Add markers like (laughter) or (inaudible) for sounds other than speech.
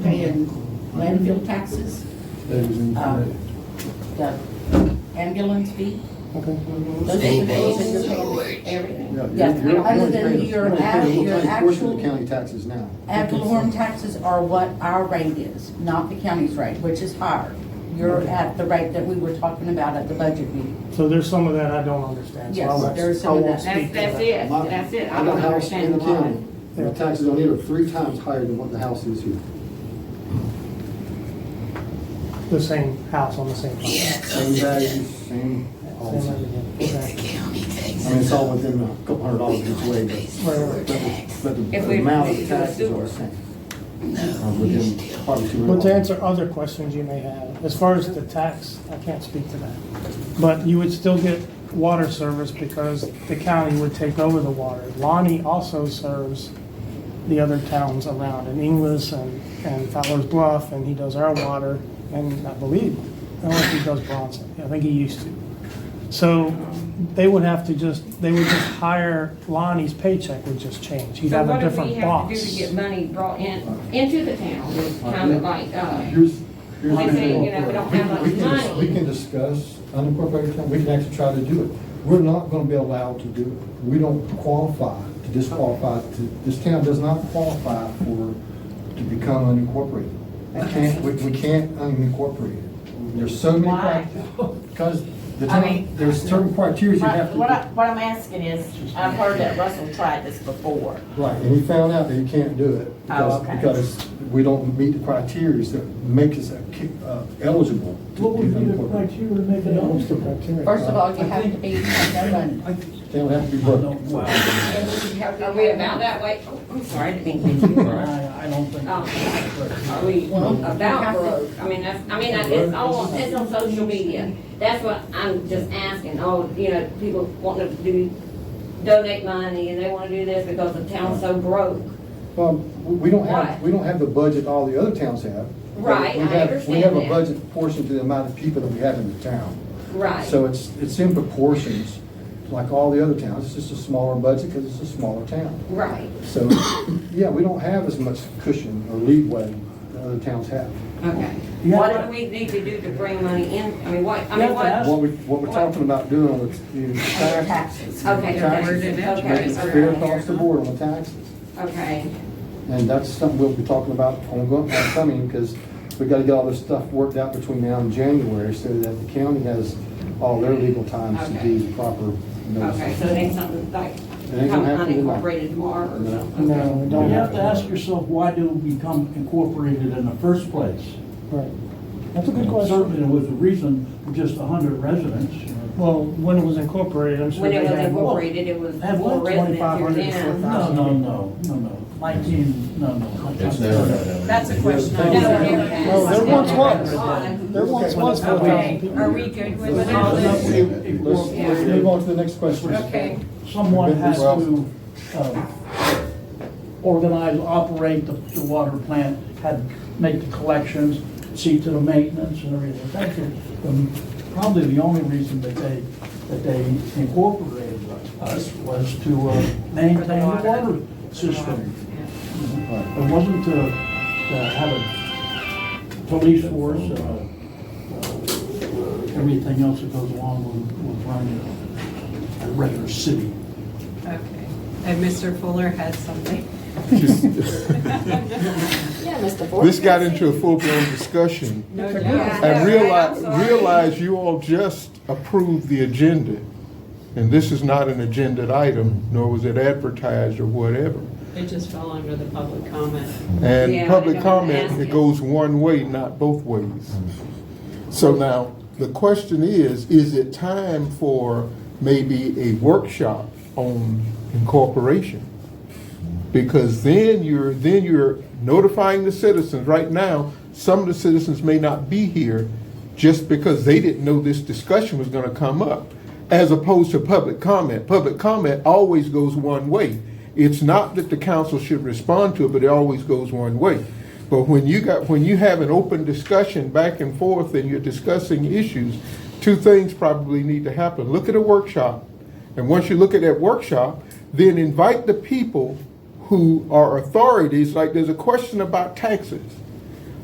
in landfill taxes, That is in um, the ambulance fee. Okay. Those are the bills that you're paying Yeah, every, you're- you're- yeah, you're other only than paying- your, you're only act- paying- your We're paying a portion of actual the county taxes now. Ad valorem taxes are what our rate is, not the county's rate, which is higher. You're at the rate that we were talking about at the budget meeting. So there's some of that I don't understand. so I Yes, won't- there is some of I won't that. speak That's, to that's that. it, My- that's it. I I got don't a house in understand the why. county, and the taxes on it are three times higher than what the house is here. The same house on the same. property. Same values, same, all the Same same. everything. Okay. I mean, it's all within a couple hundred dollars each way, but- Right, right. but the- but If the we amount of do a taxes are super. the same. Uh, Within probably two hundred But to dollars. answer other questions you may have, as far as the tax, I can't speak to that. But you would still get water service because the county would take over the water. Lonnie also serves the other towns around in Inglis and, and Fowler's Bluff, and he does our water, and I believe, I don't know if he does Bronson, I think he used to. So they would have to just, they would just hire, Lonnie's paycheck would just change. He'd So have a what do we different have boss. to do to get money brought in, into the town, is kind of like, uh, Here's, here's. They the say, thing. you know, we don't have much We can- money. We can discuss unincorporated town, we can actually try to do it. We're not gonna be allowed to do it. We don't qualify to disqualify, to, this town does not qualify for, to become unincorporated. We can't, we, we can't unincorporate it. There's so many. Why? criteria- Because the I town, mean- there's certain criteria you My- have to. What I, what I'm asking is, I've heard that Russell tried this before. Right, and he found out that he can't do it because, Oh, okay. because we don't meet the criteria that make us uh, ki- uh, eligible. to What would be the incorporate. criteria to make it eligible? First of all, you have to be, have no money. They would have to be broke. Wow, are we about that way? Oh, I'm sorry, I didn't mean to. hit you. I, I don't think. Um, Are we about broke? I mean, that's, I mean, that- it's all, it's on social media. That's what I'm just asking, all, you know, people wanting to do, donate money and they want to do this because the town's so broke. Well, we we don't have, Right. we don't have the budget all the other towns have. but Right, we I have- We understand have a that. budget proportion to the amount of people that we have in the town. Right. So it's, it's in proportions, like all the other towns, it's just a smaller budget because it's a smaller town. Right, So, yeah, we don't have as much cushion or leeway that other towns have. okay. Yeah. What do we need to do to bring money in? I mean, what, I mean, what? What we, what we're talking about doing on the the taxes. Taxes. Okay, Taxes, okay, Make okay, it fair okay. across the board on the taxes. Okay, And that's something we'll be talking about on go- on coming, because we gotta get all this stuff worked out between now and January, so that the county has all their legal times to Okay. do proper okay, so notice. it ain't something like, ain't come gonna happen tomorrow. unincorporated tomorrow or No. something? No, we You don't have to ask yourself, why did we become incorporated in the first place? Right. That's a good question. Certainly, there was a reason for just a hundred residents. Well, when it was incorporated, I'm sure When they it was had more. incorporated, it was Had what? for residents here 2,500 to in town. 4,000. No, no, no, no, no, nineteen, no, no. It's never gonna happen. That's a question. No, I there- have. No, there once Oh. was. There once was four thousand Okay, are people. we good with all Let's, this? let's let's move on to the next question. Okay. Someone has to um, organize, operate the- the water plant, had, make the collections, see to the maintenance and everything. That's the- the- probably the only reason that they, that they incorporated us was to uh, maintain the water system. It wasn't to to have a police force and a, uh, everything else that goes along with with running a- a regular city. Okay, and Mr. Fuller has something. This got into a full-blown (laughs) discussion. No doubt. And realize, I'm sorry. realize you all just approved the agenda. And this is not an agenda item, nor was it advertised or whatever. It just fell under the public comment. Yeah, I And public don't wanna ask comment, it it. goes one way, not both ways. So now, the question is, is it time for maybe a workshop on incorporation? Because then you're, then you're notifying the citizens. Right now, some of the citizens may not be here just because they didn't know this discussion was gonna come up, as opposed to public comment. Public comment always goes one way. It's not that the council should respond to it, but it always goes one way. But when you got, when you have an open discussion back and forth and you're discussing issues, two things probably need to happen. Look at a workshop. And once you look at that workshop, then invite the people who are authorities, like there's a question about taxes.